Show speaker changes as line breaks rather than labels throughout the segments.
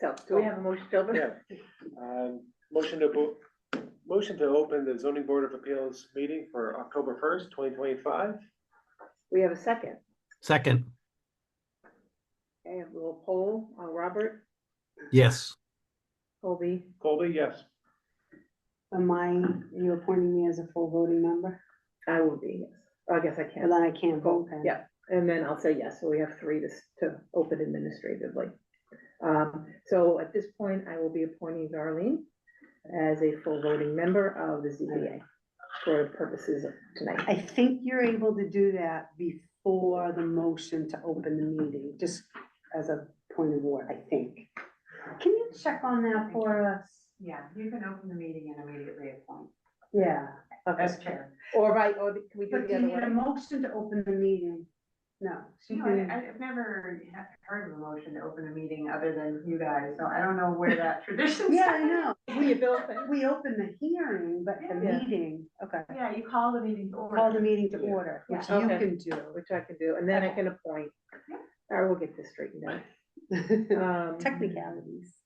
So,
Do we have a motion to open?
Yeah. Um, Motion to, bo- motion to open the zoning board of appeals meeting for October first, twenty twenty-five.
We have a second.
Second,
Okay, a little poll, uh, Robert,
yes.
Colby,
Colby, yes.
am I, you appointing me as a full voting member?
I will be, yes. Oh, I guess I
And
can.
then I can't vote then?
Yeah, and then I'll say yes, so we have three to, s- to open administratively. Um, so at this point, I will be appointing Darlene as a full voting member of the ZBA for purposes of tonight.
I think you're able to do that before the motion to open the meeting, just as a point of order, I think. Can you check on that for us?
Yeah, you can open the meeting and immediately appoint
Yeah.
as chair.
Or right, or can we do
But
it the
do you
other
need a
way?
motion to open the meeting? No. she
You know, I-
can-
I've never he- heard of a motion to open a meeting other than you guys, so I don't know where that tradition
Yeah, I
started.
know.
We built it.
We open the hearing, but the
Yeah.
meeting, okay.
Yeah, you call the meeting to
Call the
order.
meeting to
Yeah.
order, which
Yeah.
you
Okay.
can
Which I can do, and then I can appoint. I will get this straightened
do.
out. Um,
Technicalities.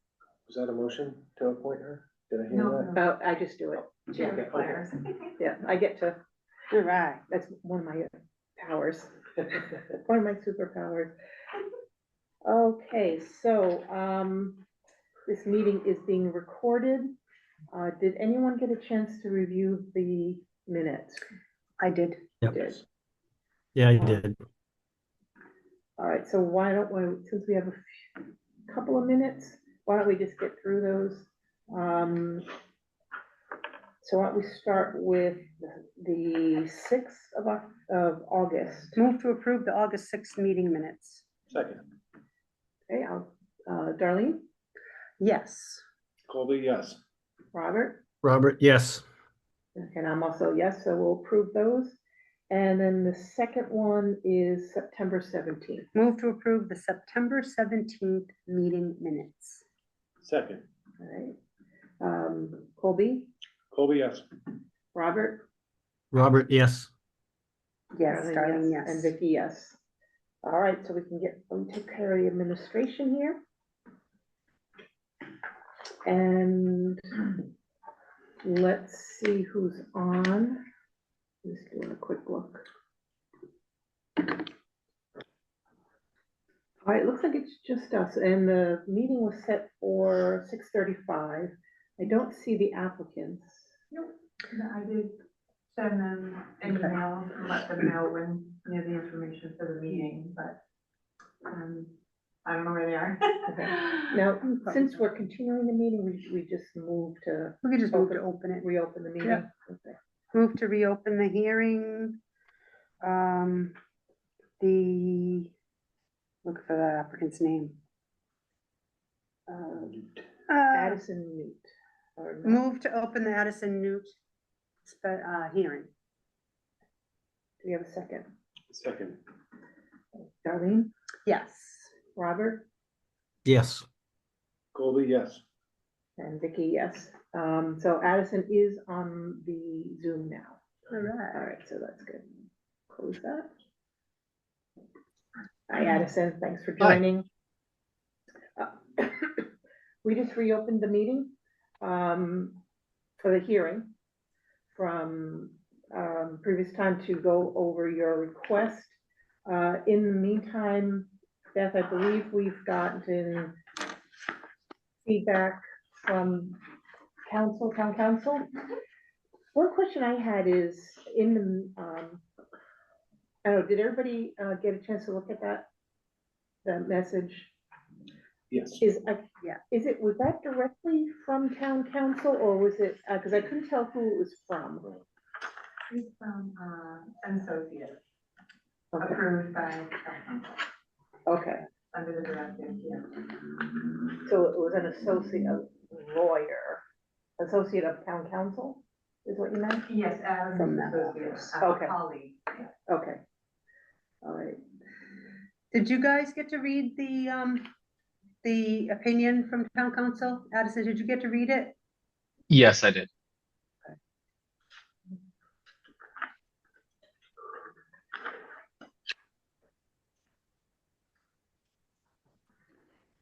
Was that a motion to appoint her? Did I
No,
hear
Oh,
no,
I just do it.
chair
Okay, okay.
declares.
Yeah, I get to,
You're right.
that's one of my powers,
that?
one of my superpowers. Okay, so, um, this meeting is being recorded. Uh, did anyone get a chance to review the minutes?
I did.
Yep.
Did.
Yeah, you did.
All right, so why don't we, since we have a few- couple of minutes, why don't we just get through those? Um, so why don't we start with the sixth of, Oc- of August?
Move to approve the August sixth meeting minutes.
Second,
Okay, I'll, uh, Darlene,
Yes.
Colby, yes.
Robert,
Robert, yes.
and I'm also yes, so we'll approve those. And then the second one is September seventeenth.
Move to approve the September seventeenth meeting minutes.
Second,
All right. Um, Colby,
Colby, yes.
Robert,
Robert, yes.
Yes, Darlene,
And
yes.
Vicky, yes. All right, so we can get, we take care of the administration here. And let's see who's on. Just doing a quick look. All right, it looks like it's just us, and the meeting was set for six thirty-five. I don't see the applicants.
Nope, no, I did send them an
Okay.
email and let them know when, you know, the information for the meeting, but, um, I don't know where they are.
Now,
Hmm,
since we're continuing the meeting, we, we just move to
We could just move to open it.
reopen the meeting.
Yeah.
Okay.
Move to reopen the hearing. Um, the, look for that applicant's name. Uh, uh,
Um, Addison Newt. or no,
Move to open the Addison Newt, spe- uh, hearing.
Do we have a second?
Second,
Darlene,
Yes.
Robert,
Yes.
Colby, yes.
and Vicky, yes. Um, so Addison is on the Zoom now.
All
All
right.
right, so that's good. Close that. Hi Addison, thanks for
Hi.
joining. Uh, We just reopened the meeting um, for the hearing from um, previous time to go over your request. Uh, In the meantime, Beth, I believe we've gotten feedback from council, town council. One question I had is in the, um, I don't know, did everybody, uh, get a chance to look at that? The message
Yes.
is, uh,
Yeah.
is it, was that directly from town council or was it, uh, cause I couldn't tell who it was from.
He's from, uh, an associate,
Okay,
approved by, uh,
Okay,
under the directive, yeah.
so it was an associate of lawyer, associate of town council, is what you meant?
Yes, Adam.
From that office.
Okay.
Colleague.
Okay. All right,
Did you guys get to read the, um, the opinion from town council? Addison, did you get to read it?
Yes, I did.